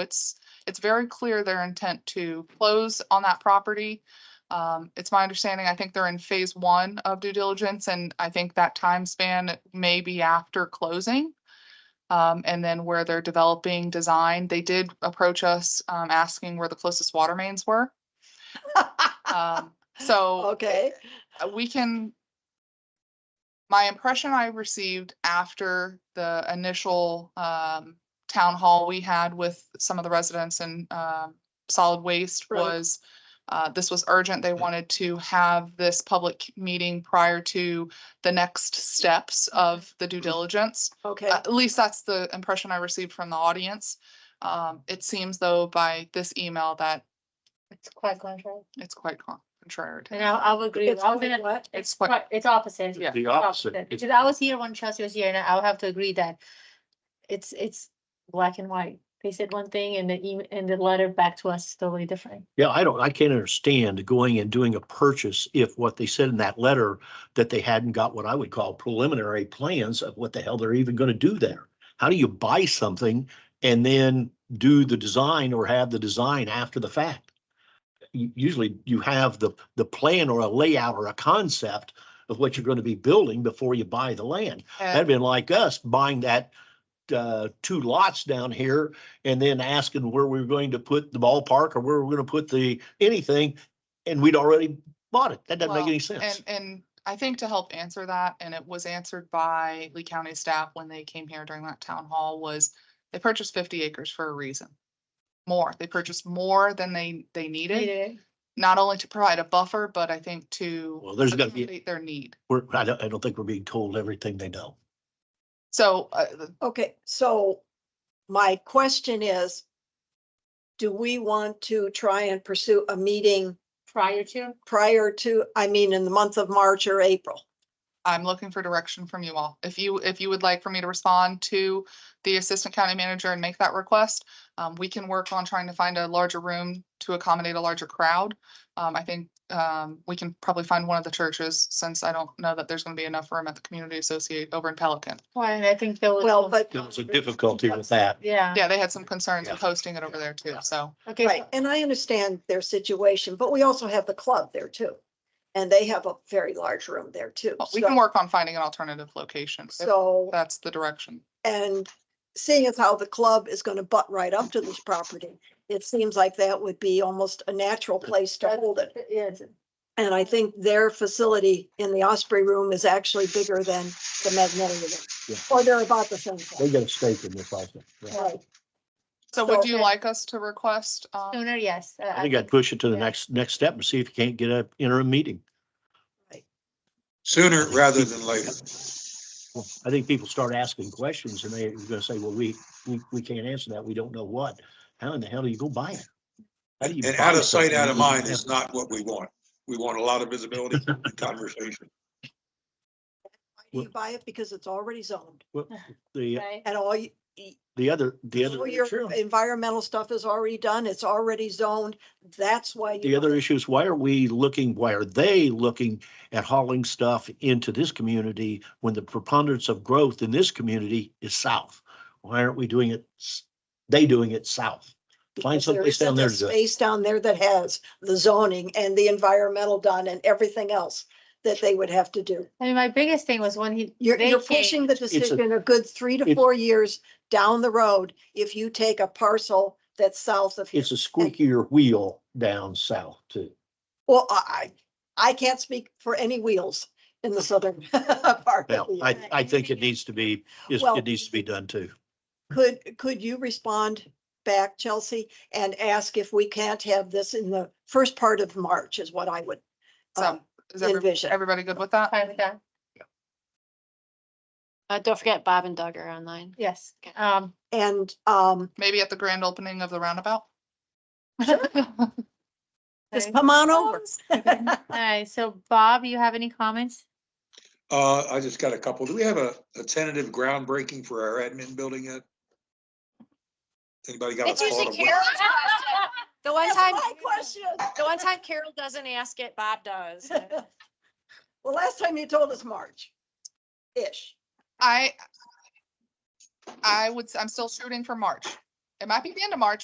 it's, it's very clear their intent to close on that property. Um, it's my understanding, I think they're in phase one of due diligence, and I think that time span may be after closing. Um, and then where they're developing design, they did approach us, um, asking where the closest water mains were. Um, so Okay, uh, we can. My impression I received after the initial um town hall we had with some of the residents and um solid waste Right. was. Uh, this was urgent. They wanted to have this public meeting prior to the next steps of the due diligence. okay, At least that's the impression I received from the audience. Um, it seems though by this email that It's quite contrary. it's quite con- contrary. to- And I, I would agree. it's with- I was quite gonna, what? It's it's quite- quite, it's opposite. Yeah. The It's opposite. It's- Because I was here when Chelsea was here and I would have to agree that it's, it's black and white. They said one thing and the email, and the letter back to us is totally different. Yeah, I don't, I can't understand going and doing a purchase if what they said in that letter that they hadn't got what I would call preliminary plans of what the hell they're even gonna do there. How do you buy something and then do the design or have the design after the fact? U- Usually you have the, the plan or a layout or a concept of what you're gonna be building before you buy the land. That'd And been like us buying that uh, two lots down here and then asking where we were going to put the ballpark or where we we're gonna put the, anything. And we'd already bought it. That doesn't make Well, any sense. And, and I think to help answer that, and it was answered by Lee County staff when they came here during that town hall, was they purchased fifty acres for a reason. More, they purchased more than they, they needed, Either- not only to provide a buffer, but I think to Well, there's gonna be, accommodate their need. we're, I don't, I don't think we're being told everything they know. So, uh, okay, so my question is, do we want to try and pursue a meeting Prior to, prior to, I mean, in the month of March or April? I'm looking for direction from you all. If you, if you would like for me to respond to the assistant county manager and make that request, um, we can work on trying to find a larger room to accommodate a larger crowd. Um, I think, um, we can probably find one of the churches since I don't know that there's gonna be enough room at the community associate over in Pelican. well, and I think there was. Well, some- but, There was a difficulty with that. Yeah, Yeah, they had some concerns with Yeah. hosting it over there too, so. okay, right, so- and I understand their situation, but we also have the club there too. And they have a very large room there too. but Oh, We can so- work on finding an alternative location. if So, That's the direction. and seeing as how the club is going to butt right up to this property, it seems like that would be almost a natural place to hold it. yeah, it's- And I think their facility in the Osprey Room is actually bigger than the Magnolia Yeah. Room. Or they're about the same They size. got a stake in this also. Yeah. Right. So would So- you like us to request, um, sooner, yes. I think I'd push it to the next, next step and see if you can't get a interim meeting. Sooner rather than later. I think people start asking questions and they're gonna say, well, we, we, we can't answer that. We don't know what. How in the hell do you go buy it? How do you And buy out of sight, something out you of don't mind have? is not what we want. We want a lot of visibility and conversation. Why do you buy it? Because it's already zoned The, Right? and all you, the other, the other. all your environmental stuff is already done. It's already zoned. That's why. you The other want it. issue is why are we looking, why are they looking at hauling stuff into this community when the preponderance of growth in this community is south? Why aren't we doing it, s- they doing it south? Find Because there someplace down isn't there a to do it. Space down there that has the zoning and the environmental done and everything else that they would have to do. I mean, my biggest thing was when he. You're, they you're came- pushing the a- decision a good three to it's- four years down the road if you take a parcel that's south of here. It's a squeakier wheel down south too. Well, I, I I can't speak for any wheels in the southern part. of Well, the- I, I think it needs to be, is- Well- it needs to be done too. Could, could you respond back, Chelsea, and ask if we can't have this in the first part of March is what I would so um, is every- envision. everybody good with that? Fine with that. Uh, don't forget Bob and Doug are online. Yes, Okay. um, And, um, Maybe at the grand opening of the roundabout? just Okay. come on over. all right, so Bob, you have any comments? Uh, I just got a couple. Do we have a, a tentative groundbreaking for our admin building yet? Anybody got a It's thought usually of what? Carol. The one That's time, my question. the one time Carol doesn't ask it, Bob does. Well, last time you told us March, ish. I, I would, s- I'm still shooting for March. It might be the end of March,